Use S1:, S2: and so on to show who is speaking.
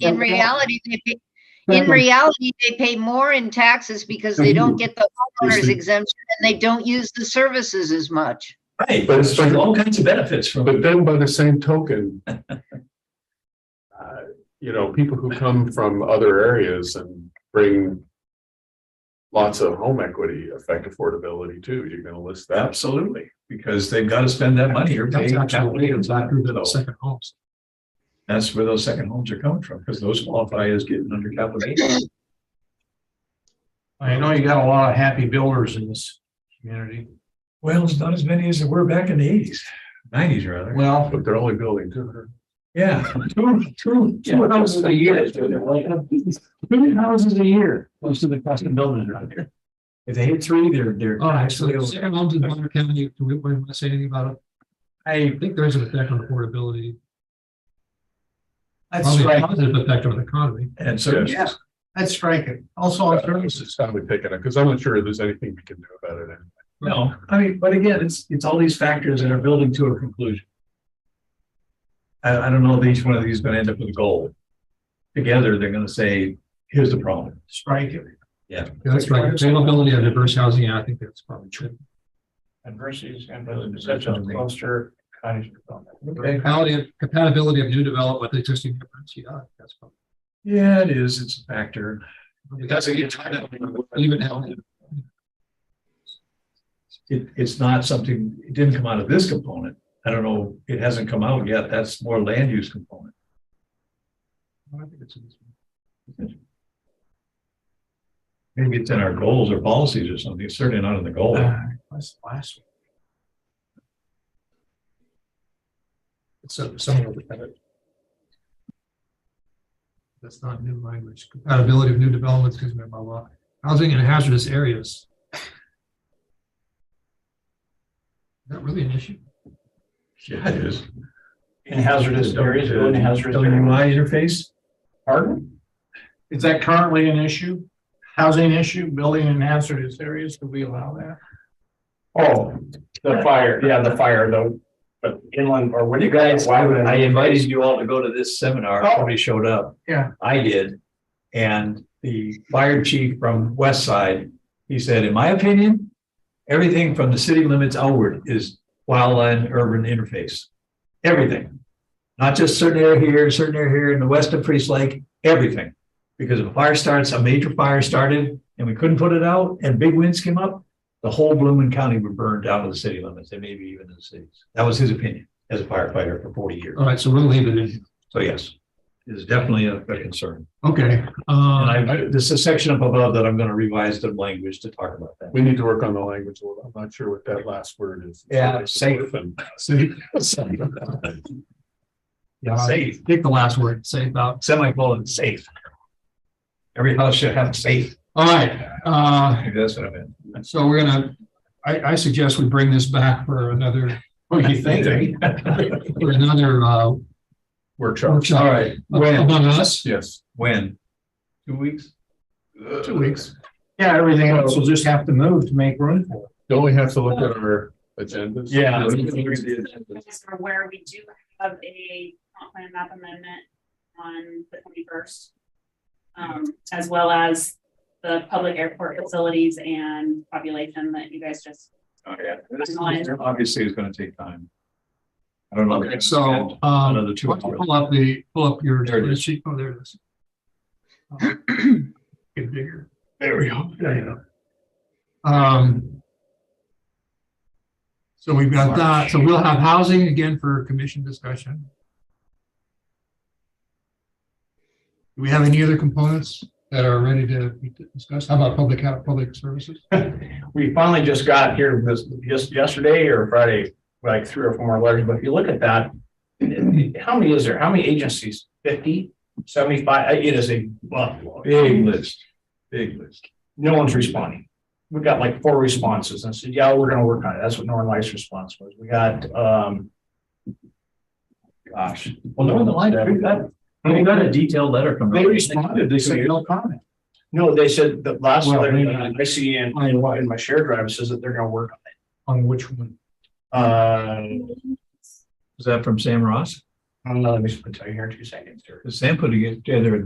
S1: in
S2: Okay.
S1: reality, they pay, in
S2: Okay.
S1: reality, they pay more in taxes because they don't get the homeowners
S3: Obviously.
S1: exemption and they don't use the services as much.
S3: Right,
S2: But
S3: but
S2: it's
S3: it's
S2: like-
S3: all kinds of benefits from it.
S2: But then by the same token, uh, you know, people who come from other areas and bring lots of home equity affect affordability too. You're going to list that.
S3: Absolutely, because they've got to spend that money or pay.
S4: That's actually a factor to the
S3: So
S4: second homes.
S3: That's where those second homes are coming from, because those qualify as getting under capital gains.
S4: I know you got a lot of happy builders in this community.
S3: Well, it's not as many as there were back in the eighties, nineties rather.
S4: Well,
S2: But they're only building two hundred.
S3: Yeah. Two, two, two houses a year. Two houses a year, most of the cost of buildings around here. If they hit three, they're, they're.
S4: all right, so the second homes in Bonner County, do we want to say anything about it? I think there's an effect on affordability,
S3: That's
S4: probably a
S3: right.
S4: positive effect on the economy.
S3: And so,
S2: Yes.
S3: yeah,
S4: That's striking. Also
S2: It's probably picking up because I'm not sure there's anything we can do about it.
S3: no, I mean, but again, it's, it's all these factors that are building to a conclusion. I, I don't know if each one of these is gonna end up with a goal. Together, they're gonna say, here's the problem.
S4: Strike it.
S3: Yeah.
S4: That's right. Availability of diverse housing, yeah, I think that's probably true.
S5: adversities and the potential of cluster cottage development.
S3: Okay.
S4: Compatibility of, compatibility of new development with existing, neighborhoods, yeah, that's probably.
S3: Yeah, it is, it's a factor.
S4: That's a good time to even have.
S3: it, it's not something, it didn't come out of this component. I don't know, it hasn't come out yet. That's more land use component.
S4: I think it's in this one.
S3: Maybe it's in our goals or policies or something, It's certainly not in the goal.
S4: Uh, That's the last one. It's some- somewhere with that. That's not new language. Compatibility of new developments, excuse me, blah, blah. Housing in hazardous areas. Is that really an issue?
S3: Yeah, it is.
S5: In hazardous areas, go in hazardous areas.
S3: WI interface,
S5: Pardon? Is that currently an issue? Housing issue, building in hazardous areas, do we allow that? Oh, the fire, yeah, the fire, the, but inland or what
S6: You guys, I invited you all to go to this seminar,
S5: Oh.
S6: nobody showed up.
S5: Yeah.
S6: I did. And the fire chief from West Side, he said, in my opinion, everything from the city limits outward is wildland urban interface. Everything. Not just certain area here, certain area here in the west of Priest Lake, everything. Because if a fire starts, a major fire started and we couldn't put it out and big winds came up, the whole Blooming County would burn down to the city limits and maybe even to the cities. That was his opinion as a firefighter for forty years.
S4: All right, so we'll leave it in.
S6: So yes, it is definitely a a concern.
S4: Okay,
S6: And
S4: uh,
S6: I, this is a section up above that I'm going to revise the language to talk about that.
S2: We need to work on the language a little. I'm not sure what that last word is.
S6: Yeah, safe.
S2: And
S4: safe. Yeah,
S6: Safe,
S4: take the last word, safe about.
S6: semicolon, safe. Every house should have safe.
S4: All right, uh,
S6: Maybe That's what I meant.
S4: So we're gonna, I, I suggest we bring this back for another,
S5: What do you think?
S4: for another, uh,
S2: Workshop.
S4: workshop. Uh,
S6: All right, when,
S4: Among us,
S2: Yes.
S6: when? Two weeks?
S4: two weeks.
S5: Yeah, everything else will just have to move to make room for
S2: Don't we have to look at our agendas?
S5: Yeah.
S7: Or where we do have a comp plan map amendment on the twenty-first. Um, as well as the public airport facilities and population that you guys just,
S6: Oh, yeah. This Obviously, it's going to take time. I don't know.
S4: Okay, so, um,
S6: Another two
S4: why don't you
S6: hours.
S4: pull up the, pull up your
S6: There it is.
S4: sheet. Oh, there it is. Get bigger.
S6: There we go.
S4: There you go. Um. So we've got that. So we'll have housing again for commission discussion. Do we have any other components that are ready to be discussed? How about public, health, public services?
S5: we finally just got here this, just yesterday or Friday, like three or four more letters, but if you look at that. How many is there? How many agencies? Fifty, seventy-five? It is a buffalo.
S6: Big list, big list.
S5: No one's responding. We got like four responses and I said, yeah, we're gonna work on it. That's what Northern Lights response was. We got, um. Gosh.
S6: Well, no, the line, we got, we got a detailed letter from.
S5: They responded. They said no comment. No, they said the last
S4: Well,
S5: letter
S4: maybe
S5: that I see in, in my shared drive says that they're gonna work on
S4: On which one?
S5: it. Uh,
S6: Is that from Sam Ross?
S5: I don't know, let me just put it here in two seconds here.
S6: Sam put together a